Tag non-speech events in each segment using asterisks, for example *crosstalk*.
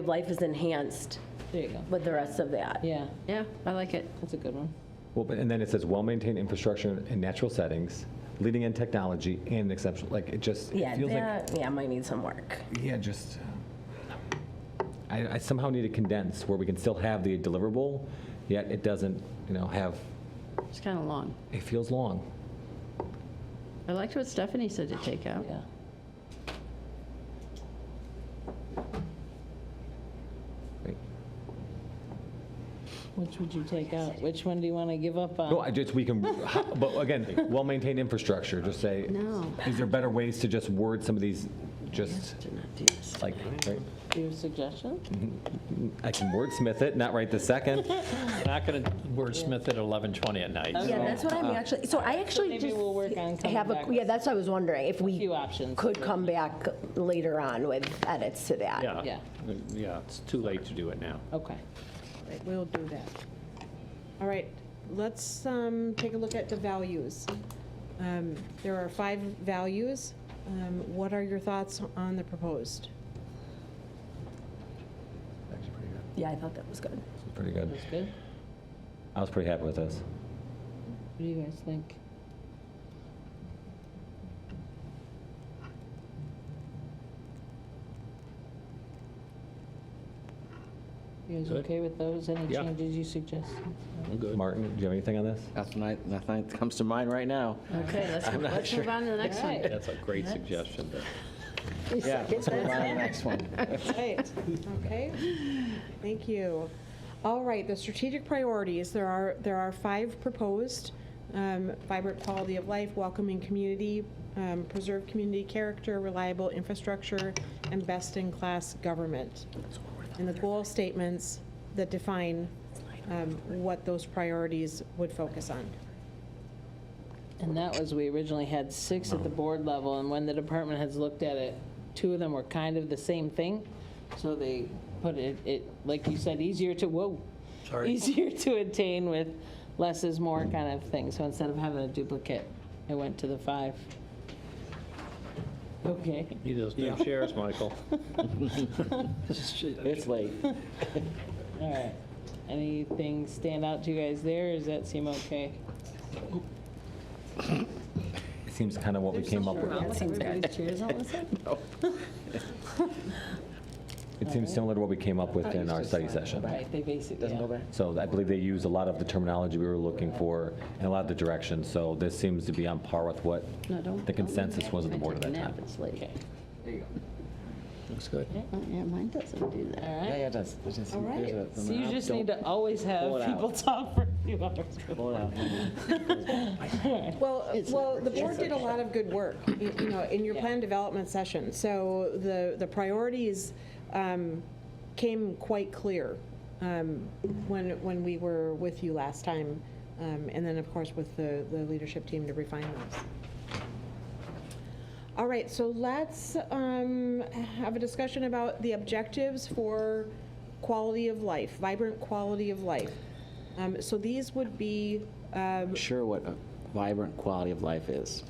of life is enhanced There you go. with the rest of that. Yeah, Yeah, I like it. that's a good one. Well, but- and then it says well-maintained infrastructure in natural settings, leading in technology and exceptional, like it just, Yeah, it feels like, that, yeah, might need some work. yeah, just, I I somehow need to condense where we can still have the deliverable, yet it doesn't, you know, have, It's kind of long. it feels long. I liked what Stephanie said to take out. Yeah. Right. Which would you take out? Which one do you want to give up on? No, I just, we can, *laughs* but again, well-maintained infrastructure, just say, No. is there better ways to just word some of these, just Did not do this. like, right? Your suggestion? I can wordsmith it, not right the second. *laughs* We're not going to wordsmith it at 11:20 at night. Yeah, that's what I'm actually, so I actually Maybe just we'll work on coming have a, back yeah, that's what I was wondering, if with a we few options. could come back later on with edits to that. Yeah, Yeah. yeah, it's too late to do it now. Okay. Right, We'll do that. All right, let's um, take a look at the values. Um, There are five values. Um, What are your thoughts on the proposed? Actually, pretty good. Yeah, I thought that was good. Pretty good. That's good. I was pretty happy with this. What do you guys think? You guys Good. okay with those? Any Yeah. changes you suggest? I'm good. Martin, do you have anything on this? That's my, nothing that comes to mind right now. Okay, let's, let's move on to the next one. Right. That's a great suggestion. Yeah, let's move on to the next one. Right, okay. Thank you. All right, the strategic priorities, there are, there are five proposed. um, Vibrant quality of life, welcoming community, um, preserve community character, reliable infrastructure, and best-in-class government. And the goal statements that define um, what those priorities would focus on. And that was, we originally had six at the board level, and when the department heads looked at it, two of them were kind of the same thing. So they put it, it, like you said, easier to, whoa. Sorry. Easier to attain with less is more kind of thing. So instead of having a duplicate, it went to the five. *laughs* Okay. Need those new chairs, Michael. It's late. All right. Anything stand out to you guys there? or Does that seem okay? It seems kind of what we came up with. It seems similar to what we came up with in our study session. Right, they basically, Doesn't go yeah. back? So I believe they use a lot of the terminology we were looking for and a lot of the direction. So this seems to be on par with what No, don't- the consensus was at the I board at took that a nap, time. It's late. Okay. Looks good. Oh, Yeah, mine doesn't do that. All Yeah, right. yeah, it does. It does. All right, There's a- so you just need to always Pull have it out. people *laughs* talk for a few hours. Hold on. Well, uh, well, the board did a lot of good work, you you know, in your plan development session. So the, the priorities um, came quite clear um, when, when we were with you last time, um, and then, of course, with the, the leadership team to refine those. All right, so let's um, have a discussion about the objectives for quality of life, vibrant quality of life. Um, So these would be um, Sure what a vibrant quality of life is.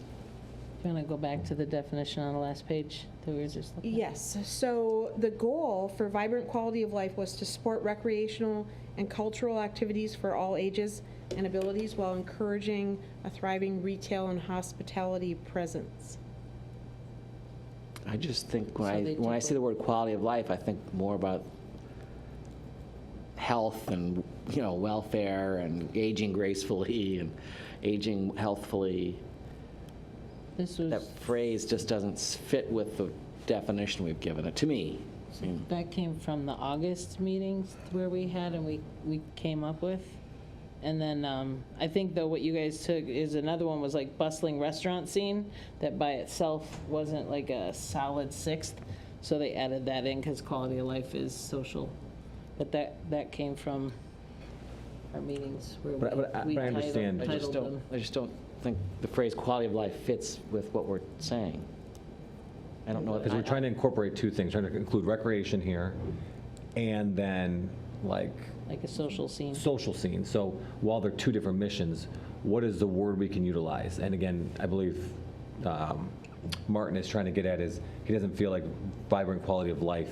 Going to go back to the definition on the last page that we were just looking at. Yes, so the goal for vibrant quality of life was to support recreational and cultural activities for all ages and abilities while encouraging a thriving retail and hospitality presence. I just think when So I, they when I took see the word quality of life, I think more about health and, you know, welfare and aging gracefully and aging healthfully. This That was, phrase just doesn't s- fit with the definition we've given it, to me. I mean, that came from the August meetings where we had and we, we came up with. And then um, I think though what you guys took is another one was like bustling restaurant scene that by itself wasn't like a solid sixth. So they added that in because quality of life is social. But that, that came from our meetings where we But I- but I- we but I titled- understand. I just titled them. don't, I just don't think the phrase quality of life fits with what we're saying. I don't know. Because we're trying to incorporate two things, trying to include recreation here and then like like a social scene. social scene. So while they're two different missions, what is the word we can utilize? And again, I believe um, Martin is trying to get at is he doesn't feel like vibrant quality of life